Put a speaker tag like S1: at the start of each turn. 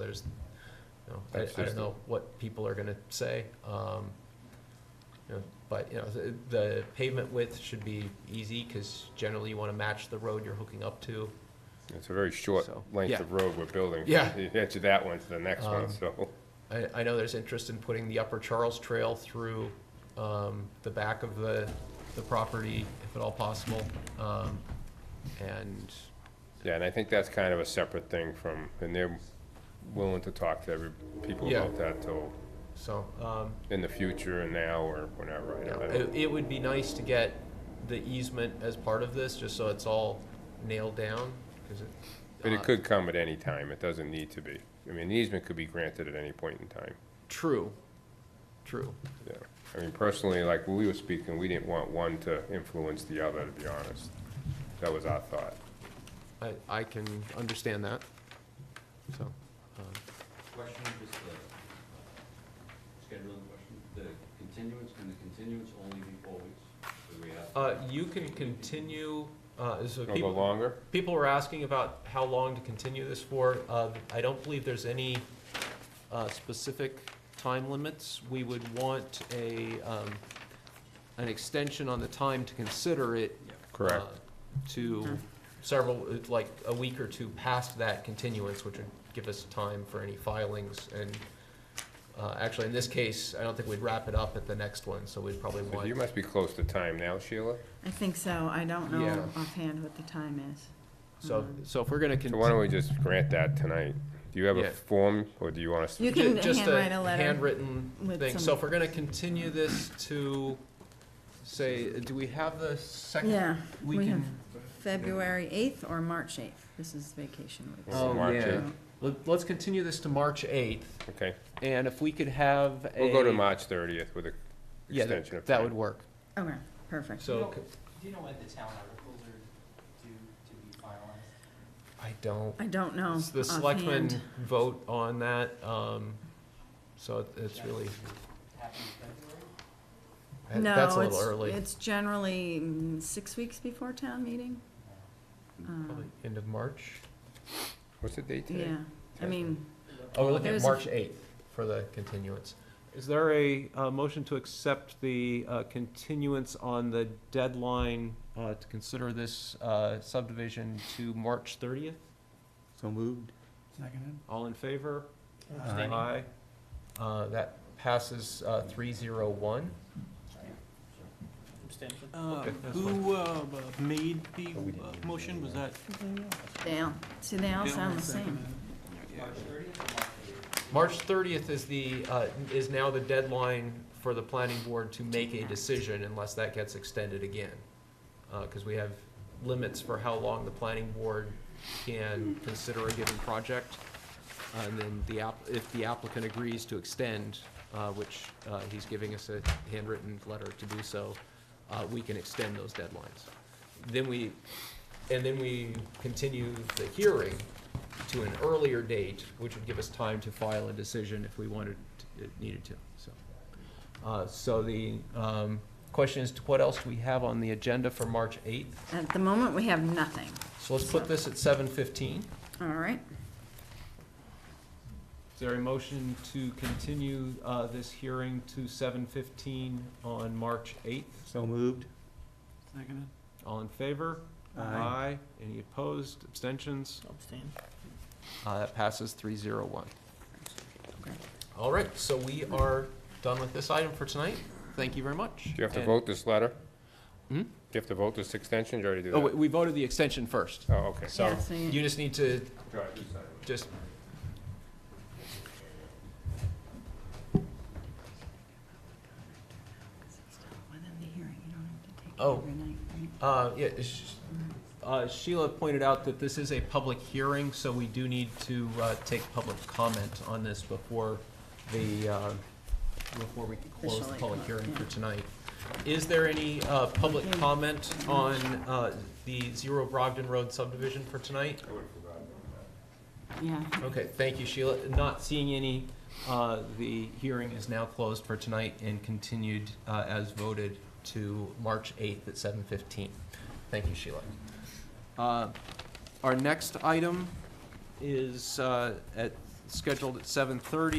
S1: there's, you know, I,
S2: That's
S1: I
S2: just
S1: don't know what people are gonna say. Um, you know, but, you know, the- the pavement width should be easy, cause generally you wanna match the road you're hooking up to.
S2: It's a very short
S1: So,
S2: length
S1: yeah.
S2: of road we're building.
S1: Yeah.
S2: It's that one to the next
S1: Um,
S2: one, so,
S1: I, I know there's interest in putting the Upper Charles Trail through, um, the back of the, the property, if at all possible. Um, and,
S2: yeah, and I think that's kind of a separate thing from, and they're willing to talk to every, people
S1: Yeah.
S2: about that till
S1: so, um,
S2: in the future and now or whenever, I
S1: Yeah,
S2: don't- I
S1: It,
S2: don't,
S1: it would be nice to get the easement as part of this, just so it's all nailed down, 'cause it.
S2: but it
S1: uh,
S2: could come at any time, it doesn't need to be. I mean, the easement could be granted at any point in time,
S1: True, true,
S2: yeah. I mean, personally, like, when we were speaking, we didn't want one to influence the other, to be honest. That was our thought.
S1: I, I can understand that, so, um,
S3: Question, just the, uh, scheduling question, the continuance, can the continuance only be four weeks? Do we have?
S1: uh, you can continue, uh, so
S2: Go
S1: people,
S2: longer?
S1: people were asking about how long to continue this for, uh, I don't believe there's any, uh, specific time limits, we would want a, um, an extension on the time to consider it
S3: Yeah.
S2: Correct.
S1: uh,
S4: Mm-hmm.
S1: To several, it's like a week or two past that continuance, which would give us time for any filings. And uh, actually, in this case, I don't think we'd wrap it up at the next one, so we'd probably
S2: So You
S1: want,
S2: must be close to time now, Sheila.
S4: I think so. I don't know
S1: Yeah.
S4: offhand what the time is.
S1: so,
S4: Mm-hmm.
S1: so if we're gonna
S2: So why
S1: continue.
S2: don't we just grant that tonight? Do you have
S1: Yeah.
S2: a form, or do you want us to?
S4: You can handwrite a letter.
S1: Handwritten
S4: with
S1: thing. So
S4: some-
S1: if we're gonna continue this to, say, do we have the second?
S4: Yeah,
S1: We
S4: we
S1: can,
S4: have- February eighth or March eighth. This is vacation week.
S2: Well,
S1: Oh,
S2: March
S1: yeah.
S2: eighth.
S1: let- let's continue this to March 8th,
S2: Okay,
S1: and if we could have a.
S2: we'll go to March thirtieth with a
S1: Yeah, that-
S2: extension of
S1: that
S2: time.
S1: would work,
S4: Okay, perfect.
S1: so. c-
S5: Do you know when the town articles are due to be finalized?
S1: I don't.
S4: I don't know
S1: It's The selectmen
S4: Oh, offhand.
S1: vote on that, um, so it- it's really,
S5: Happy February?
S1: that- that's a
S4: No,
S1: little
S4: it's,
S1: early.
S4: it's generally mm, six weeks before town meeting. Um,
S1: Probably End of March.
S2: What's the date today?
S4: Yeah, I mean,
S1: Oh, we're looking at
S4: There's a-
S1: March eighth for the continuance. Is there a, uh, motion to accept the, uh, continuance on the deadline, uh, to consider this, uh, subdivision to March thirtieth?
S6: So moved.
S1: All in favor? Aye. Uh, that passes, uh, three zero one.
S5: Abstention?
S1: Okay, that's
S7: Who uh, made the
S2: Oh, we didn't
S7: uh,
S2: do
S7: motion? Was that?
S4: they all, see, they all sound the same.
S5: March thirtieth or March eighth?
S1: March thirtieth is the, uh, is now the deadline for the planning board to make a decision unless that gets extended again. Uh 'cause cause we have limits for how long the planning board can consider a given project. Uh, And then the app, if the applicant agrees to extend, uh, which, uh, he's giving us a handwritten letter to do so, uh, we can extend those deadlines. Then we, and then we continue the hearing to an earlier date, which would give us time to file a decision if we wanted, to- it needed to, so. Uh, So the um, question is, what else do we have on the agenda for March 8th?
S4: At the moment, we have nothing.
S1: So let's put this at 7:15.
S4: All right,
S1: Is there a motion to continue uh, this hearing to 7:15 on March 8th?
S6: So moved.
S7: Seconded.
S1: All in favor?
S6: Aye.
S1: Any opposed, abstentions?
S7: Abstained.
S1: Uh, That passes 301.
S4: Okay.
S1: All right, so we are done with this item for tonight. Thank you very much.
S2: Do you have to
S1: And-
S2: vote this letter?
S1: Hmm?
S2: Do you have to vote this extension, Did you already do that?
S1: Oh, we- we voted the extension first.
S2: Oh, okay.
S1: So
S4: yeah, so
S1: you
S4: you,
S1: just need to
S2: Go ahead, you sign it.
S1: just
S4: within the hearing, you don't have to take it
S1: Oh.
S4: every night, right?
S1: Uh, yeah, sh- uh, Sheila pointed out that this is a public hearing, so we do need to, uh, take public comment on this before the, uh, before we close the
S4: Officially,
S1: public hearing for
S4: yeah.
S1: tonight. Is there any, uh, public
S4: Okay.
S1: comment on, uh, the Zero Brogdon Road subdivision for tonight?
S4: Yeah.
S1: Okay, thank you, Sheila. Not seeing any, uh, the hearing is now closed for tonight and continued, uh, as voted to March eighth at seven fifteen. Thank you, Sheila. Uh, Our next item is, uh, at scheduled at seven thirty.